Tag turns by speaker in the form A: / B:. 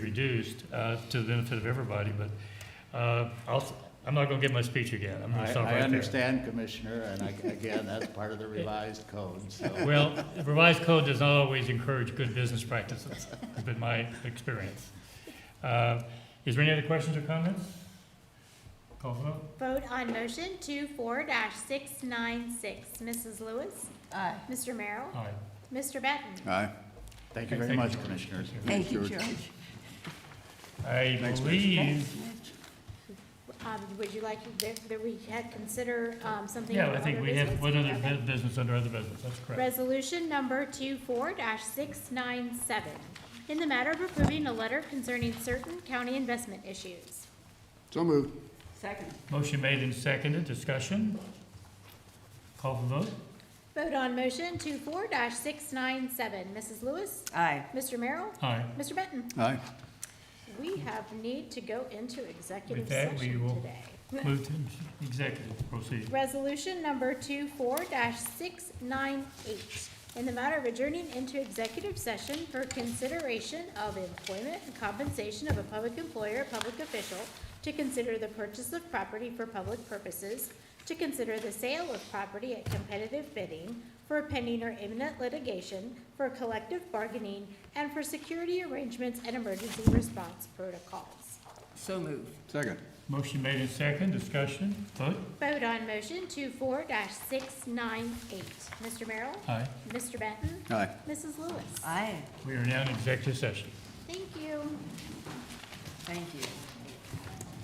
A: reduced uh, to the benefit of everybody, but uh, I'll, I'm not going to give my speech again. I'm going to
B: I,
A: stop right
B: I
A: there.
B: understand, Commissioner, and I, again, that's part of the revised code, so.
A: Well, the revised code does not always encourage good business practices, has been my experience. Uh, Is there any other questions or comments? Call for vote?
C: Vote on motion two four dash six nine six. Mrs. Lewis?
D: Aye.
C: Mr. Merrill?
A: Aye.
C: Mr. Benton?
B: Aye. Thank you very
A: Thank you,
B: much,
A: George.
B: Commissioners.
D: Thank you, George.
A: I
B: Thanks, Mitch.
A: believe,
C: Um, would you like that, that we had consider, um, something?
A: yeah,
C: under
A: I think
C: other
A: we have
C: business?
A: one other
C: Okay.
A: bu- business under other business, that's correct.
C: Resolution number two four dash six nine seven. In the matter of approving a letter concerning certain county investment issues.
E: So moved.
D: Second.
A: Motion made and seconded, discussion? Call for vote?
C: Vote on motion two four dash six nine seven. Mrs. Lewis?
D: Aye.
C: Mr. Merrill?
A: Aye.
C: Mr. Benton?
B: Aye.
C: We have need to go into executive
A: With that, we
C: session
A: will-
C: today.
A: Move to executive, proceed.
C: Resolution number 24-698, in the matter of adjourning into executive session for consideration of employment and compensation of a public employer, or public official, to consider the purchase of property for public purposes, to consider the sale of property at competitive bidding for pending or imminent litigation, for collective bargaining, and for security arrangements and emergency response protocols.
D: So moved.
E: Second.
A: Motion made and seconded, discussion? Vote?
C: Vote on motion 24-698. Mr. Merrill?
A: Aye.
C: Mr. Benton?
E: Aye.
C: Mrs. Lewis?
D: Aye.
A: We are now in executive session.
C: Thank you.
D: Thank you.